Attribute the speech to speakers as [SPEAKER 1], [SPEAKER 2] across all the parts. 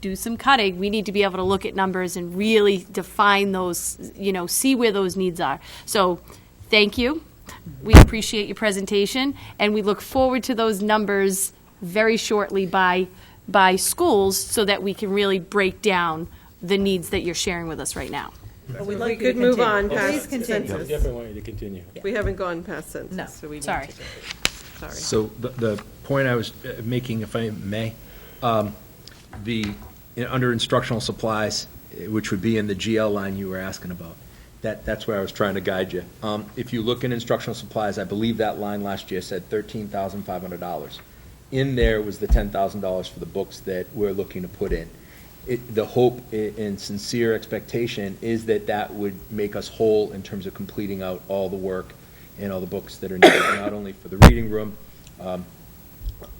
[SPEAKER 1] do some cutting, we need to be able to look at numbers and really define those, you know, see where those needs are. So, thank you. We appreciate your presentation, and we look forward to those numbers very shortly by, by schools so that we can really break down the needs that you're sharing with us right now.
[SPEAKER 2] But we'd like
[SPEAKER 3] We
[SPEAKER 2] you to
[SPEAKER 3] could move
[SPEAKER 2] continue.
[SPEAKER 3] on
[SPEAKER 4] Please
[SPEAKER 3] past
[SPEAKER 4] continue.
[SPEAKER 3] census.
[SPEAKER 4] Definitely want you to continue.
[SPEAKER 3] We haven't gone past census.
[SPEAKER 2] No,
[SPEAKER 3] so we need
[SPEAKER 1] sorry.
[SPEAKER 3] to do it. Sorry.
[SPEAKER 5] So the, the point I was uh, making, if I may, um, the, you know, under instructional supplies, eh, which would be in the GL line you were asking about, that, that's where I was trying to guide you. Um, If you look in instructional supplies, I believe that line last year said $13,500. In there was the $10,000 for the books that we're looking to put in. It, the hope i- and sincere expectation is that that would make us whole in terms of completing out all the work and all the books that are needed, not only for the reading room, um,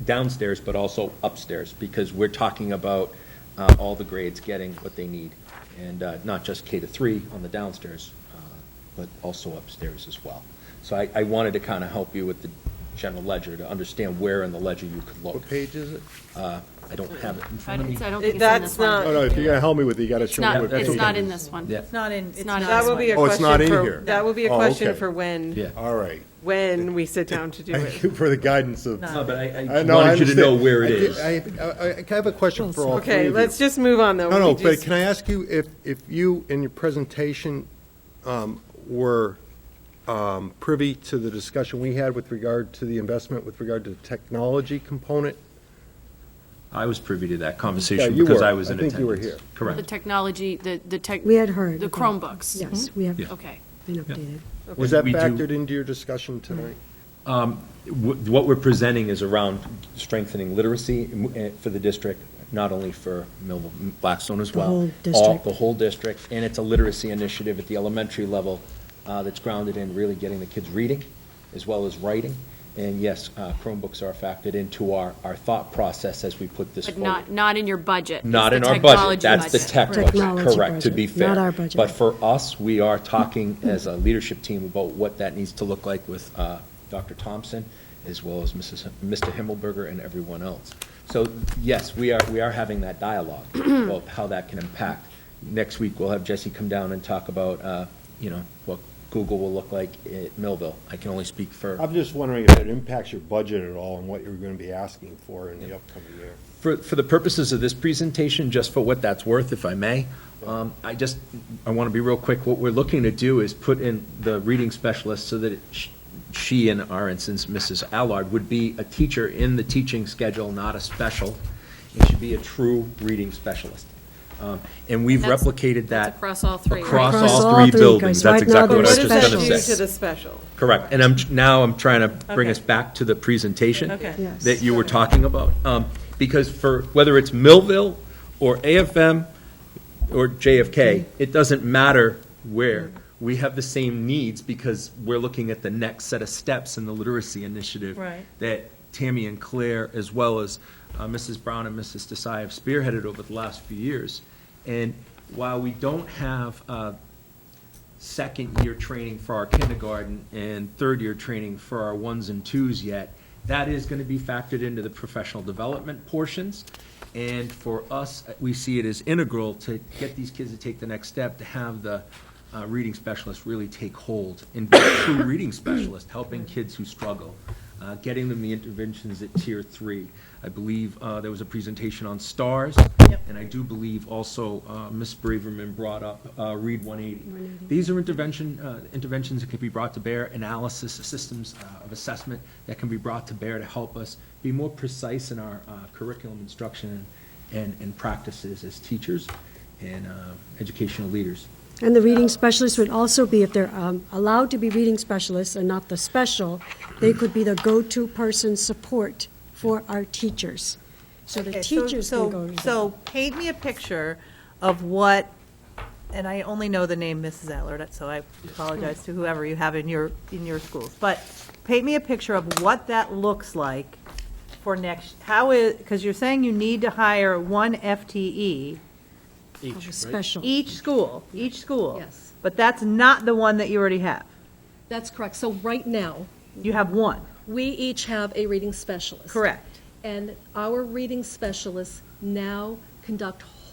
[SPEAKER 5] downstairs, but also upstairs, because we're talking about uh, all the grades getting what they need, and uh, not just K to three on the downstairs, uh, but also upstairs as well. So I, I wanted to kind of help you with the general ledger, to understand where in the ledger you could look.
[SPEAKER 6] What page is it?
[SPEAKER 5] Uh, I don't have it in
[SPEAKER 1] I
[SPEAKER 5] front of
[SPEAKER 1] don't
[SPEAKER 5] me.
[SPEAKER 1] I don't think
[SPEAKER 3] It-
[SPEAKER 1] it's in
[SPEAKER 3] that's
[SPEAKER 1] this one.
[SPEAKER 3] not-
[SPEAKER 6] Oh, no, if you're going to help me with it, you got to
[SPEAKER 1] It's
[SPEAKER 6] show me.
[SPEAKER 1] not,
[SPEAKER 6] what
[SPEAKER 1] it's
[SPEAKER 6] page.
[SPEAKER 1] not in this one.
[SPEAKER 5] Yeah.
[SPEAKER 2] It's not in, it's
[SPEAKER 1] not
[SPEAKER 2] not.
[SPEAKER 1] in
[SPEAKER 3] That
[SPEAKER 1] this
[SPEAKER 3] will be a
[SPEAKER 6] Oh, it's
[SPEAKER 3] question
[SPEAKER 6] not in
[SPEAKER 3] for,
[SPEAKER 6] here.
[SPEAKER 3] that will be a
[SPEAKER 6] Oh,
[SPEAKER 3] question
[SPEAKER 6] okay.
[SPEAKER 3] for when,
[SPEAKER 5] Yeah.
[SPEAKER 6] All right.
[SPEAKER 3] when we sit down to do
[SPEAKER 6] Thank
[SPEAKER 3] it.
[SPEAKER 6] you for the guidance of. Uh,
[SPEAKER 2] No.
[SPEAKER 5] No, but I,
[SPEAKER 6] I
[SPEAKER 5] I
[SPEAKER 6] know, I
[SPEAKER 5] wanted you to know
[SPEAKER 6] understand.
[SPEAKER 5] where it
[SPEAKER 6] I
[SPEAKER 5] is.
[SPEAKER 6] did- I, I- I have a question for all three of
[SPEAKER 3] Okay,
[SPEAKER 6] you.
[SPEAKER 3] let's just move on, though.
[SPEAKER 6] No, no,
[SPEAKER 3] We
[SPEAKER 6] but
[SPEAKER 3] just-
[SPEAKER 6] can I ask you if, if you, in your presentation, um, were um, privy to the discussion we had with regard to the investment, with regard to the technology component?
[SPEAKER 5] I was privy to that
[SPEAKER 6] Yeah,
[SPEAKER 5] conversation
[SPEAKER 6] you
[SPEAKER 5] because
[SPEAKER 6] were.
[SPEAKER 5] I was
[SPEAKER 6] I
[SPEAKER 5] in attendance.
[SPEAKER 6] think you were here.
[SPEAKER 1] The
[SPEAKER 5] Correct.
[SPEAKER 1] technology, the, the tech.
[SPEAKER 4] We had heard.
[SPEAKER 1] The
[SPEAKER 4] about-
[SPEAKER 1] Chromebooks. Mm-hmm.
[SPEAKER 4] Yes, we have
[SPEAKER 5] Yeah.
[SPEAKER 1] Okay.
[SPEAKER 4] been updated.
[SPEAKER 6] Was that
[SPEAKER 5] We do-
[SPEAKER 6] factored into your discussion tonight?
[SPEAKER 3] Mm-hmm.
[SPEAKER 5] Wh- What we're presenting is around strengthening literacy m- eh, for the district, not only for Millville, Blackstone as
[SPEAKER 4] The
[SPEAKER 5] well.
[SPEAKER 4] whole
[SPEAKER 5] All-
[SPEAKER 4] district.
[SPEAKER 5] The whole district, and it's a literacy initiative at the elementary level uh, that's grounded in really getting the kids reading as well as writing. And yes, uh, Chromebooks are factored into our, our thought process as we put this
[SPEAKER 1] But
[SPEAKER 5] forward.
[SPEAKER 1] not, not in your budget.
[SPEAKER 5] Not
[SPEAKER 1] It's
[SPEAKER 5] in
[SPEAKER 1] the
[SPEAKER 5] our budget,
[SPEAKER 1] technology
[SPEAKER 5] that's the
[SPEAKER 1] budget.
[SPEAKER 5] tech budget,
[SPEAKER 4] Technology
[SPEAKER 5] correct, to be
[SPEAKER 4] budget, not
[SPEAKER 5] fair.
[SPEAKER 4] our budget.
[SPEAKER 5] But for us, we are talking as a leadership team about what that needs to look like with uh, Dr. Thompson, as well as Mrs. Him- Mr. Himmelberger and everyone else. So, yes, we are, we are having that dialogue about how that can impact. Next week, we'll have Jesse come down and talk about, uh, you know, what Google will look like at Millville. I can only speak for
[SPEAKER 6] I'm just wondering if it impacts your budget at all and what you're going to be asking for in the upcoming year.
[SPEAKER 5] For, for the purposes of this presentation, just for what that's worth, if I may, um, I just, I want to be real quick. What we're looking to do is put in the reading specialist so that it- she, in our instance, Mrs. Allard, would be a teacher in the teaching schedule, not a special. It should be a true reading specialist. Um, And we've
[SPEAKER 1] That's-
[SPEAKER 5] replicated
[SPEAKER 1] that's
[SPEAKER 5] that.
[SPEAKER 1] across all three, right?
[SPEAKER 5] Across
[SPEAKER 4] Across
[SPEAKER 5] all
[SPEAKER 4] all
[SPEAKER 5] three
[SPEAKER 4] three,
[SPEAKER 5] buildings.
[SPEAKER 4] because
[SPEAKER 5] That's
[SPEAKER 4] right now
[SPEAKER 5] exactly
[SPEAKER 3] But
[SPEAKER 5] what I
[SPEAKER 3] Oh, what
[SPEAKER 5] was
[SPEAKER 4] they're
[SPEAKER 3] does
[SPEAKER 5] just
[SPEAKER 3] that
[SPEAKER 5] going
[SPEAKER 4] special.
[SPEAKER 3] do
[SPEAKER 5] to
[SPEAKER 3] to
[SPEAKER 5] say.
[SPEAKER 3] the special?
[SPEAKER 5] Correct, and I'm, now I'm trying to bring us
[SPEAKER 3] Okay.
[SPEAKER 5] back to the presentation
[SPEAKER 3] Okay.
[SPEAKER 4] Yes.
[SPEAKER 5] that you were talking about. Um, Because for, whether it's Millville, or AFM, or JFK, it doesn't matter where. We have the same needs because we're looking at the next set of steps in the literacy initiative.
[SPEAKER 3] Right.
[SPEAKER 5] That Tammy and Claire, as well as uh, Mrs. Brown and Mrs. Desai have spearheaded over the last few years. And while we don't have uh, second-year training for our kindergarten and third-year training for our ones and twos yet. That is going to be factored into the professional development portions. And for us, we see it as integral to get these kids to take the next step, to have the uh, reading specialist really take hold and be a true reading specialist, helping kids who struggle, uh, getting them the interventions at tier three. I believe uh, there was a presentation on STARS. And I do believe also uh, Ms. Braverman brought up uh, Read 180. These are intervention, uh, interventions that can be brought to bear, analysis, systems uh, of assessment that can be brought to bear to help us be more precise in our uh, curriculum instruction and, and practices as teachers and uh, educational leaders.
[SPEAKER 4] And the reading specialist would also be, if they're um, allowed to be reading specialists and not the special, they could be the go-to person support for our teachers. So the
[SPEAKER 2] Okay, so-
[SPEAKER 4] teachers
[SPEAKER 2] so-
[SPEAKER 4] can go to them.
[SPEAKER 2] So paint me a picture of what, and I only know the name Mrs. Allard, so I apologize to whoever you have in your, in your schools. But paint me a picture of what that looks like for next, how is, because you're saying you need to hire one FTE,
[SPEAKER 4] Of a Special.
[SPEAKER 2] each school, each school.
[SPEAKER 7] Yes.
[SPEAKER 2] But that's not the one that you already have.
[SPEAKER 7] That's correct. So right now,
[SPEAKER 2] You have one.
[SPEAKER 7] we each have a reading specialist.
[SPEAKER 2] Correct.
[SPEAKER 7] And our reading specialists now conduct